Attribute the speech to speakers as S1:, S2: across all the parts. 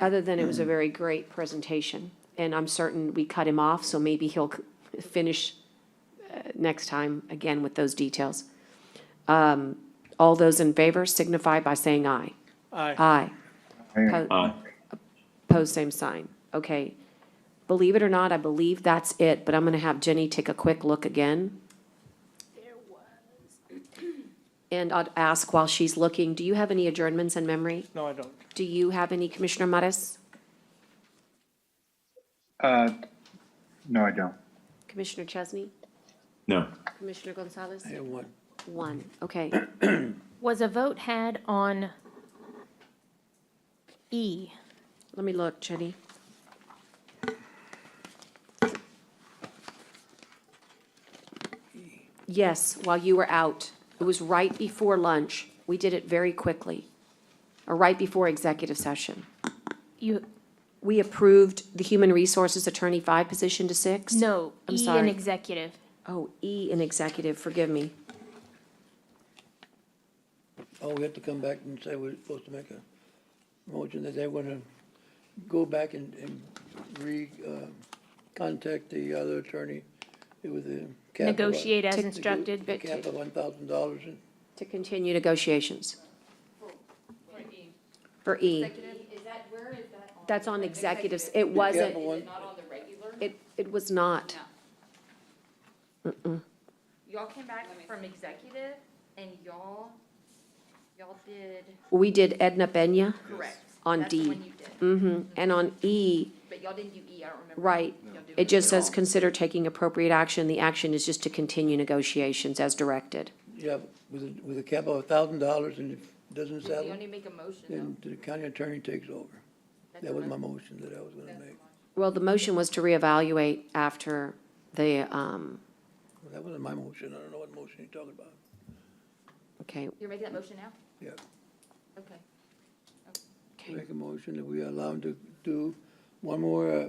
S1: other than it was a very great presentation. And I'm certain we cut him off, so maybe he'll c- finish uh, next time again with those details. Um, All those in favor signify by saying aye.
S2: Aye.
S1: Aye. Po-
S3: Aye.
S1: Pose same sign. Okay. Believe it or not, I believe that's it, but I'm going to have Jenny take a quick look again. And I'd ask while she's looking, do you have any adjournments in memory?
S2: No, I don't.
S1: Do you have any, Commissioner Mattis?
S4: Uh, No, I don't.
S1: Commissioner Chesney?
S3: No.
S1: Commissioner Gonzalez?
S2: one.
S1: One, okay.
S5: Was a vote had on E?
S1: Let me look, Jenny. Yes, while you were out. It was right before lunch. We did it very quickly, or right before executive session.
S5: You,
S1: We approved the human resources attorney five position to six?
S5: no,
S1: I'm
S5: E in
S1: sorry.
S5: executive.
S1: Oh, E in executive, forgive me.
S6: Oh, we have to come back and say we're supposed to make a motion that they wanna go back and, and re, uh, contact the other attorney with the capital.
S5: Negotiate as
S1: Tick-
S5: instructed, but
S6: Capital one thousand dollars and
S1: To continue negotiations. For E. For E.
S7: Is that, where is that on?
S1: That's on executives. It
S6: Yeah,
S1: wasn't,
S6: but-
S7: Not on the regular?
S1: it, it was not.
S7: Y'all came back from executive and y'all, y'all did.
S1: We did Edna Benya.
S7: Correct.
S1: On
S7: That's the
S1: D.
S7: one you did,
S1: hmm and on E,
S7: but y'all didn't do E, I don't remember.
S1: Right.
S7: y'all E. doing
S1: it just
S7: at all.
S1: says, consider taking appropriate action. The action is just to continue negotiations as directed.
S6: Yeah, with a, with a cap of a thousand dollars and if it doesn't
S7: You
S6: settle,
S7: only make a motion
S6: then
S7: though.
S6: the county attorney takes over.
S7: That's
S6: That was
S7: a
S6: my
S7: mo-
S6: motion that I was gonna make.
S1: Well, the motion was to reevaluate after the, um,
S6: Well, That wasn't my motion, I don't know what motion you're talking about.
S1: okay,
S7: You're making that motion now?
S6: Yeah,
S7: Okay.
S1: okay.
S6: make a motion that we allow them to do one more, uh,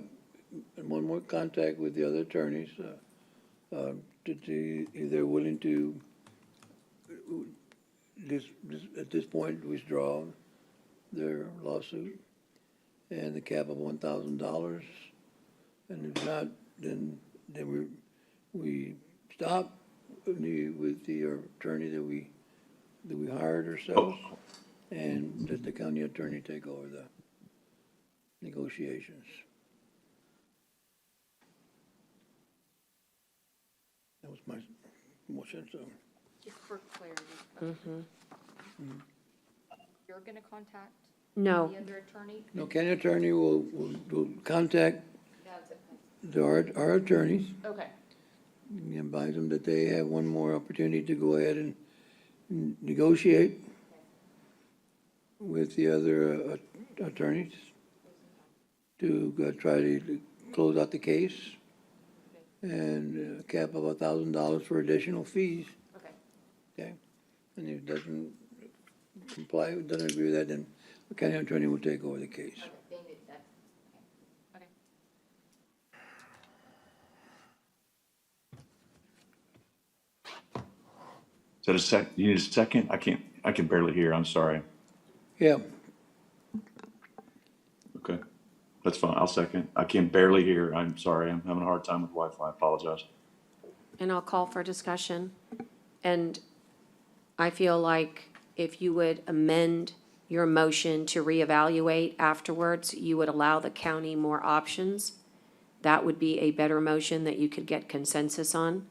S6: one more contact with the other attorneys, uh, uh, to see if they're willing to, uh, this, this, at this point, withdraw their lawsuit and the cap of one thousand dollars. And if not, then, then we, we stop with the- with the attorney that we, that we hired ourselves and let the county attorney take over the negotiations. That was my motion, so.
S7: Just for clarity.
S6: Mm-hmm.
S7: You're gonna contact
S1: No,
S7: the under attorney?
S6: No, county attorney will, will, will contact
S7: That's it.
S6: the, our, our attorneys
S7: Okay.
S6: and advise them that they have one more opportunity to go ahead and negotiate with the other uh, attorneys to go try to close out the case and a cap of a thousand dollars for additional fees,
S7: Okay.
S6: okay? And if it doesn't comply, doesn't agree with that, then the county attorney will take over the case.
S7: Then it- that's-
S3: Is that a sec, you need a second? I can't, I can barely hear. I'm sorry.
S6: Yeah,
S3: Okay. That's fine. I'll second. I can barely hear. I'm sorry. I'm having a hard time with Wi-Fi. I apologize.
S1: and I'll call for discussion. And I feel like if you would amend your motion to reevaluate afterwards, you would allow the county more options. That would be a better motion that you could get consensus on.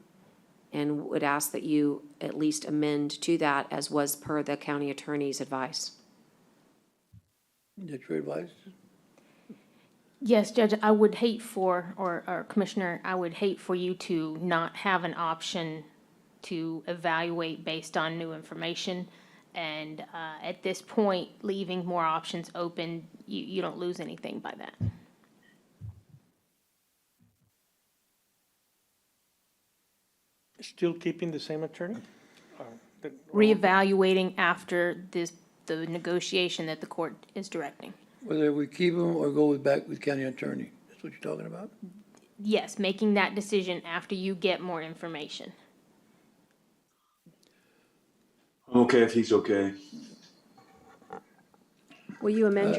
S1: And would ask that you at least amend to that as was per the county attorney's advice.
S6: that's your advice.
S5: Yes, Judge, I would hate for, or, or Commissioner, I would hate for you to not have an option to evaluate based on new information. And, uh, at this point, leaving more options open, you, you don't lose anything by that.
S2: Still keeping the same attorney? Or the-
S5: Reevaluating after this, the negotiation that the court is directing.
S6: Whether we keep them or go back with county attorney, that's what you're talking about?
S5: Yes, making that decision after you get more information.
S3: I'm okay if he's okay.
S1: Will you amend